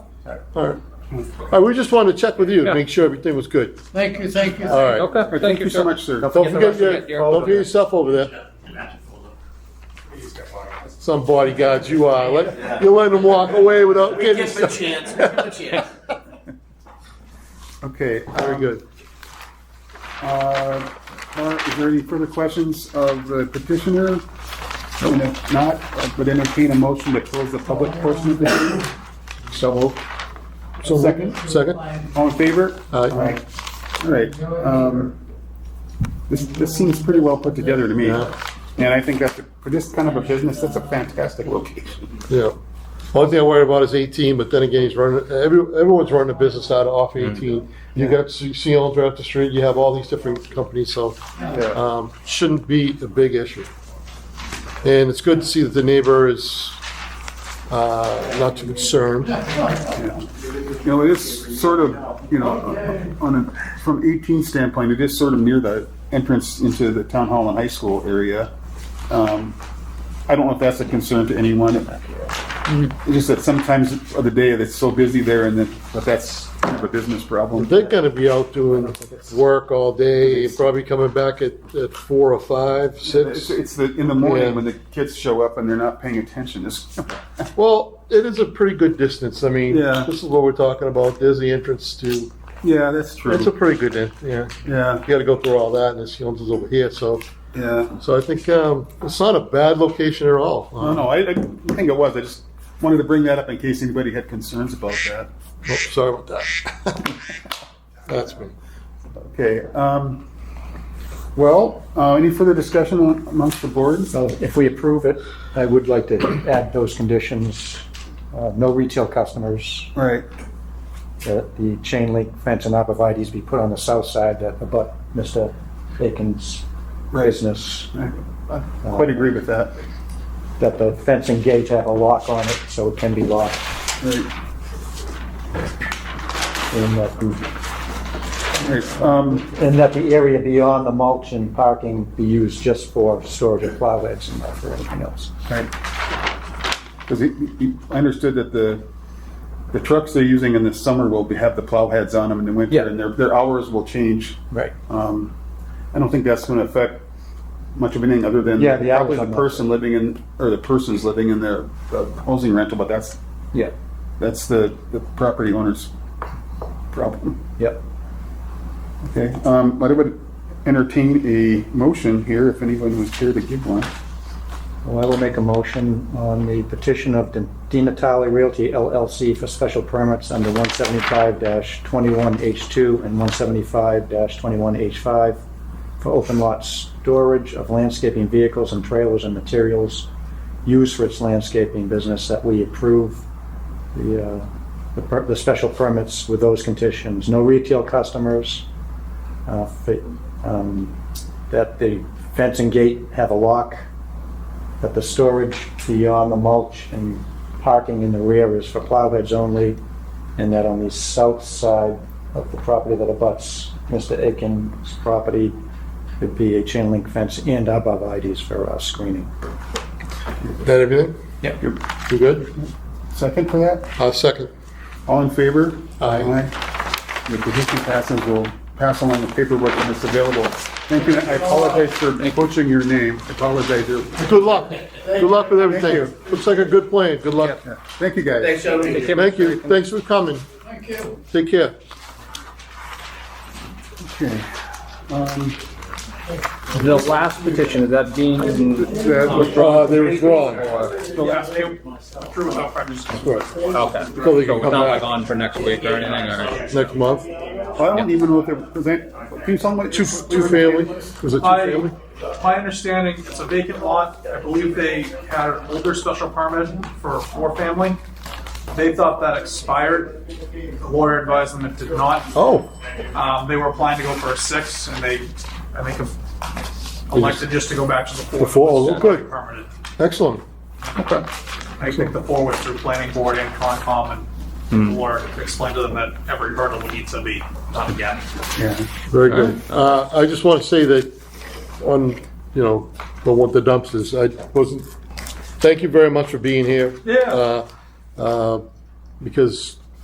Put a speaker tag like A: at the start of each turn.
A: All right. All right, we just wanted to check with you to make sure everything was good.
B: Thank you, thank you.
A: All right.
C: Okay,
D: Thank you so much, sir.
A: Don't forget your,
C: forget your-
A: don't forget your stuff over there. Some bodyguards you are. Let- You're letting them walk away without getting
E: Give him a
A: stuff.
E: chance, give him a chance.
D: Okay.
A: Very
D: um,
A: good.
D: uh, Mark, Is there any further questions of the petitioner? And if not, I would entertain a motion to close the public portion of the hearing.
A: So moved.
D: So second,
A: Second?
D: all in favor?
A: Aye.
D: All right. um, This, this seems pretty well put together to me.
A: Yeah.
D: And I think that's, a- for this kind of a business, that's a fantastic location.
A: Yeah. Only thing I worry about is 18, but then again, he's running, every, everyone's running a business out of off
D: Mm.
A: 18. You got Seals right up the street, you have all these different companies, so, um, shouldn't be a big issue. And it's good to see that the neighbor is, uh, not too concerned.
D: You know, it is sort of, you know, on a, from 18 standpoint, it is sort of near the entrance into the town hall and high school area. Um, I don't know if that's a concern to anyone. It's just that sometimes of the day that's so busy there and then, but that's kind of a business problem.
A: They're gonna be out doing work all day, probably coming back at, at four or five,
D: It's,
A: six.
D: it's the, in the morning
A: Yeah.
D: when the kids show up and they're not paying attention. It's,
A: Well, it is a pretty good distance. I mean,
D: Yeah.
A: this is what we're talking about. There's the entrance to,
D: yeah, that's true.
A: it's a pretty good, en- yeah.
D: yeah,
A: You gotta go through all that and this Yones is over here, so,
D: yeah.
A: so I think, um, it's not a bad location at all.
D: No,
A: Uh,
D: no, I, I think it was. I just wanted to bring that up in case anybody had concerns about that.
A: oh, Sorry about that. That's me.
D: Okay, um, well, uh, any further discussion on- amongst the board?
F: So if we approve it, I would like to add those conditions, uh, no retail customers,
D: All right,
F: that the chain link fence and abrevieties be put on the south side that abut Mr. Bacon's business,
D: I I quite agree with that.
F: that the fencing gate have a lock on it so it can be locked,
D: Right,
F: and that the,
D: right, um,
F: and that the area beyond the mulch and parking be used just for storage of plowheads and not for anything else.
D: right. Because I understood that the, the trucks they're using in the summer will be, have the plow heads on them in the
F: Yeah.
D: winter, and their, their hours will change.
F: Right.
D: Um, I don't think that's gonna affect much of anything other than
F: Yeah, the hours
D: probably the
F: on that.
D: person living in, or the persons living in their uh, housing rental, but that's,
F: Yeah,
D: that's the, the property owner's problem.
F: yep.
D: Okay, um, but I would entertain a motion here if anyone was here to give one.
F: Well, I will make a motion on the petition of Di Natale Realty LLC for special permits under 175-21H2 and 175-21H5 for open lot storage of landscaping vehicles and trailers and materials used for its landscaping business that we approve the, uh, the per- the special permits with those conditions. No retail customers, uh, fa- um, that the fencing gate have a lock, that the storage beyond the mulch and parking in the rear is for plowheads only, and that on the south side of the property that abuts Mr. Aiken's property, would be a chain link fence and abrevieties for uh, screening.
A: That everything?
D: Yep.
A: You good?
D: Second for that?
A: Uh, second.
D: All in favor?
A: Aye.
D: The petition passes, we'll pass along the paperwork when it's available. Thank you, I apologize for butchering your name, I apologize.
A: Good luck. Good luck with everything.
D: you.
A: Looks like a good plan. Good luck.
D: Thank you, guys.
E: Thanks, gentlemen.
A: Thank you. Thanks for coming.
B: Thank you.
A: Take care.
D: Okay. Um,
C: The last petition, is that being, okay.
D: that was-
A: Uh, they withdraw.
D: the
A: So
D: last pa-
A: they
C: So
A: can
C: it's not
A: come
C: like
A: back
C: on for next week or anything, or?
A: next month.
D: I don't even know if they're, is that, can you tell me?
A: Two, two family? Was it two
G: I,
A: family?
G: my understanding, it's a vacant lot. I believe they had an older special permit for a four-family. They thought that expired. The lawyer advised them it did not.
A: Oh,
G: Um, they were applying to go for a six, and they, I think, elected just to go back to the four.
A: The four, oh, good.
G: Permanent.
A: excellent.
G: I think the four was through planning board and Concom,
A: Hmm.
G: and the lawyer explained to them that every hurdle would need to be done again.
D: Yeah.
A: Very good. Uh, I just want to say that on, you know, the what the dumpsters, I wasn't, thank you very much for being here.
G: Yeah.
A: Uh, uh, Because